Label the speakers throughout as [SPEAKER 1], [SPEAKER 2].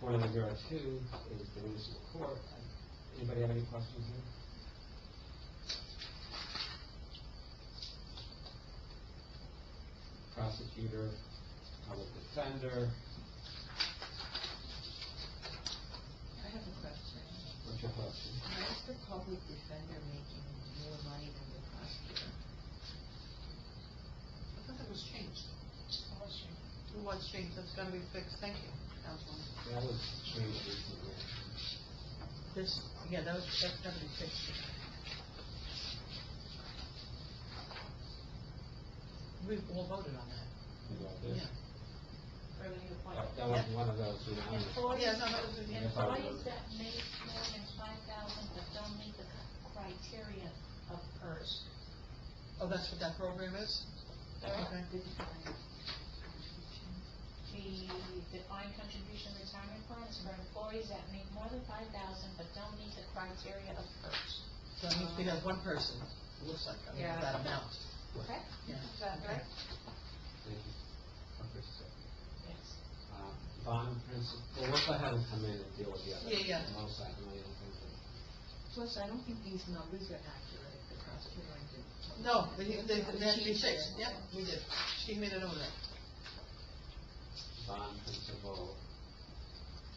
[SPEAKER 1] Four nine zero two is the municipal court. Anybody have any questions here? Prosecutor, public defender,
[SPEAKER 2] I have a question.
[SPEAKER 1] what's your question?
[SPEAKER 2] Why is the public defender making more money than the prosecutor?
[SPEAKER 3] I thought that was changed. It was changed, that's gonna be fixed, thank you, Councilman.
[SPEAKER 1] That was changed recently.
[SPEAKER 3] This, yeah, that was, that's gonna be fixed. We've all voted on that.
[SPEAKER 1] You got this?
[SPEAKER 3] Yeah.
[SPEAKER 1] That- That was one of those, you know,
[SPEAKER 3] Yes, I know, it was-
[SPEAKER 4] Employees that make more than five thousand but don't meet the criteria of PERS.
[SPEAKER 3] Oh, that's what that program is? Okay.
[SPEAKER 4] The defined contribution retirement plan is for employees that make more than five thousand but don't meet the criteria of PERS.
[SPEAKER 3] So I mean, we have one person, it looks like, I mean,
[SPEAKER 2] Yeah.
[SPEAKER 3] that amount.
[SPEAKER 4] Correct?
[SPEAKER 3] Yeah.
[SPEAKER 4] Is that correct?
[SPEAKER 1] thank you. Okay, so,
[SPEAKER 4] Yes.
[SPEAKER 1] uh, Bond principal, well, let's let him come in and deal with the other.
[SPEAKER 3] Yeah, yeah.
[SPEAKER 1] Most likely, I don't think that.
[SPEAKER 2] Plus, I don't think these numbers are accurate, the prosecutor and the...
[SPEAKER 3] No, they, they, they had to be fixed, yeah, we did. She made it over there.
[SPEAKER 1] bond principal,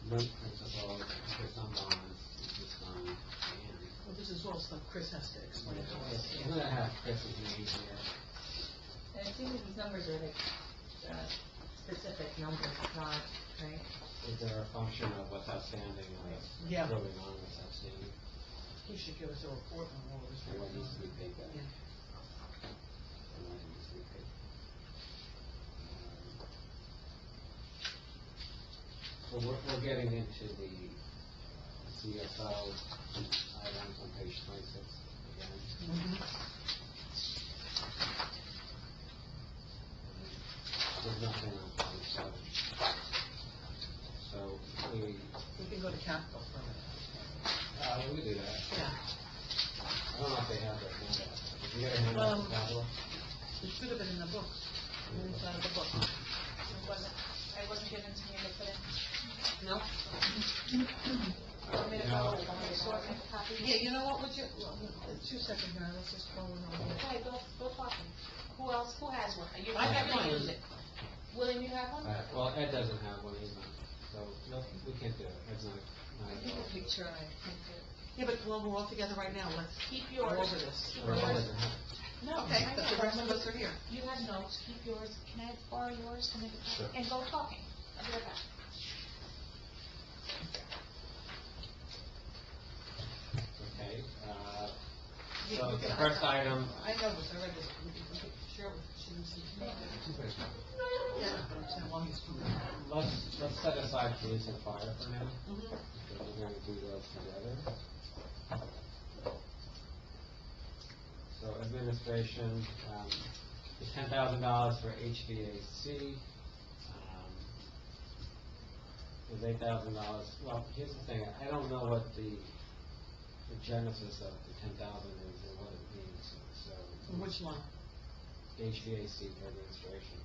[SPEAKER 1] note principal, for some bonds, is just on Andy.
[SPEAKER 3] Well, this is all stuff Chris has to explain to us.
[SPEAKER 1] I'm gonna have Chris's name here.
[SPEAKER 2] I think that these numbers are like, uh, specific numbers, not, right?
[SPEAKER 1] Is there a function of what's outstanding, or what's
[SPEAKER 3] Yeah.
[SPEAKER 1] going on, what's outstanding,
[SPEAKER 3] He should give us a report on all of this.
[SPEAKER 1] and what needs to be paid back?
[SPEAKER 3] Yeah.
[SPEAKER 1] And what needs to be paid. Um, So we're, we're getting into the uh, CFO items on page twenty-six again.
[SPEAKER 3] Mm-hmm.
[SPEAKER 1] There's nothing on page seven. So, we,
[SPEAKER 3] We can go to capital for a minute.
[SPEAKER 1] uh, we do that.
[SPEAKER 3] Yeah,
[SPEAKER 1] I don't know if they have that handout. If you got a handout,
[SPEAKER 3] Um,
[SPEAKER 1] Pablo?
[SPEAKER 3] it should have been in the book, inside of the book.
[SPEAKER 4] It wasn't, it wasn't given to me to put in.
[SPEAKER 3] No?
[SPEAKER 4] I made a
[SPEAKER 1] No.
[SPEAKER 4] note of it, so I can copy it.
[SPEAKER 3] Yeah, you know what, would you, two seconds now, let's just go in on here.
[SPEAKER 4] Okay, go, go talking. Who else, who has one? Are you,
[SPEAKER 3] I
[SPEAKER 4] I'm
[SPEAKER 3] have
[SPEAKER 4] not gonna
[SPEAKER 3] mine.
[SPEAKER 4] use it. William, you have one?
[SPEAKER 1] Uh, well, Ed doesn't have one, he's not, so, no, we can't do it, Ed's not, not involved.
[SPEAKER 3] picture, I Yeah, but well, we're all together right now, let's
[SPEAKER 4] Keep
[SPEAKER 3] go over
[SPEAKER 4] yours.
[SPEAKER 3] this.
[SPEAKER 4] Keep
[SPEAKER 1] Or Ed
[SPEAKER 4] yours.
[SPEAKER 1] doesn't have it.
[SPEAKER 4] No,
[SPEAKER 3] Okay,
[SPEAKER 4] I
[SPEAKER 3] the
[SPEAKER 4] know.
[SPEAKER 3] the rest of us are here.
[SPEAKER 4] You have notes, keep yours, can I borrow yours to make a
[SPEAKER 1] Sure.
[SPEAKER 4] copy? And go talking, I'll be right back.
[SPEAKER 1] Okay, uh,
[SPEAKER 3] You-
[SPEAKER 1] So
[SPEAKER 3] you
[SPEAKER 1] the
[SPEAKER 3] can-
[SPEAKER 1] first item-
[SPEAKER 3] I know this, I read this, we can, we can share with, she was. Yeah, but I'm saying while he's doing that.
[SPEAKER 1] let's, let's set aside police and fire for now,
[SPEAKER 3] Mhm.
[SPEAKER 1] because we're gonna do those together. So administration, um, the ten thousand dollars for HVAC, um, is eight thousand dollars, well, here's the thing, I don't know what the, the genesis of the ten thousand is and what it means, so.
[SPEAKER 3] Which one?
[SPEAKER 1] HVAC for administration.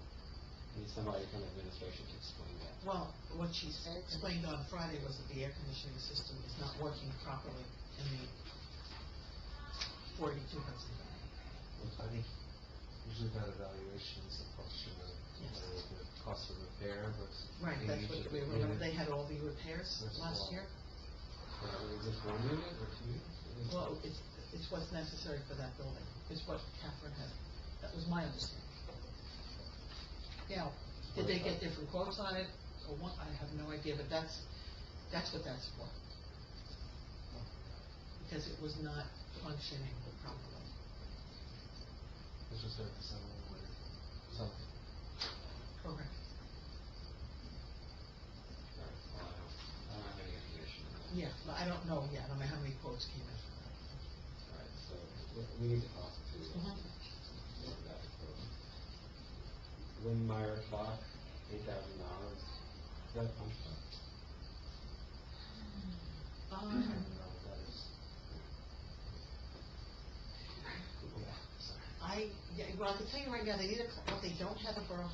[SPEAKER 1] Need somebody from administration to explain that.
[SPEAKER 3] Well, what she said- explained on Friday was that the air conditioning system is not working properly in the forty-two Hudson.
[SPEAKER 5] Well, I think usually that evaluation is a function of
[SPEAKER 3] Yes.
[SPEAKER 5] uh, the cost of repair versus.
[SPEAKER 3] Right, that's
[SPEAKER 5] age
[SPEAKER 3] what,
[SPEAKER 5] of
[SPEAKER 3] we
[SPEAKER 5] the
[SPEAKER 3] remember
[SPEAKER 5] unit.
[SPEAKER 3] they had all the repairs
[SPEAKER 5] That's
[SPEAKER 3] last
[SPEAKER 5] wrong.
[SPEAKER 3] year?
[SPEAKER 1] Uh, Is this one unit or two units?
[SPEAKER 3] Well, it's, it's what's necessary for that building, is what Catherine had, that was my understanding. Now, did they get different quotes on it, or what, I have no idea, but that's, that's what that's for. Because it was not functioning properly.
[SPEAKER 5] It's just like someone with something.
[SPEAKER 3] Correct.
[SPEAKER 1] All right, well, I don't- I don't have any information on that.
[SPEAKER 3] Yeah, but I don't know yet, I don't know how many quotes came in.
[SPEAKER 1] All right, so we- we need to talk to
[SPEAKER 3] Mhm.
[SPEAKER 1] that. Windmeyer clock, eight thousand dollars. Is that a punch clock? I
[SPEAKER 3] Um,
[SPEAKER 1] don't know what that is. Yeah, sorry.
[SPEAKER 3] I, yeah, well, I can tell you right now, they need a, cl- what they don't have a borough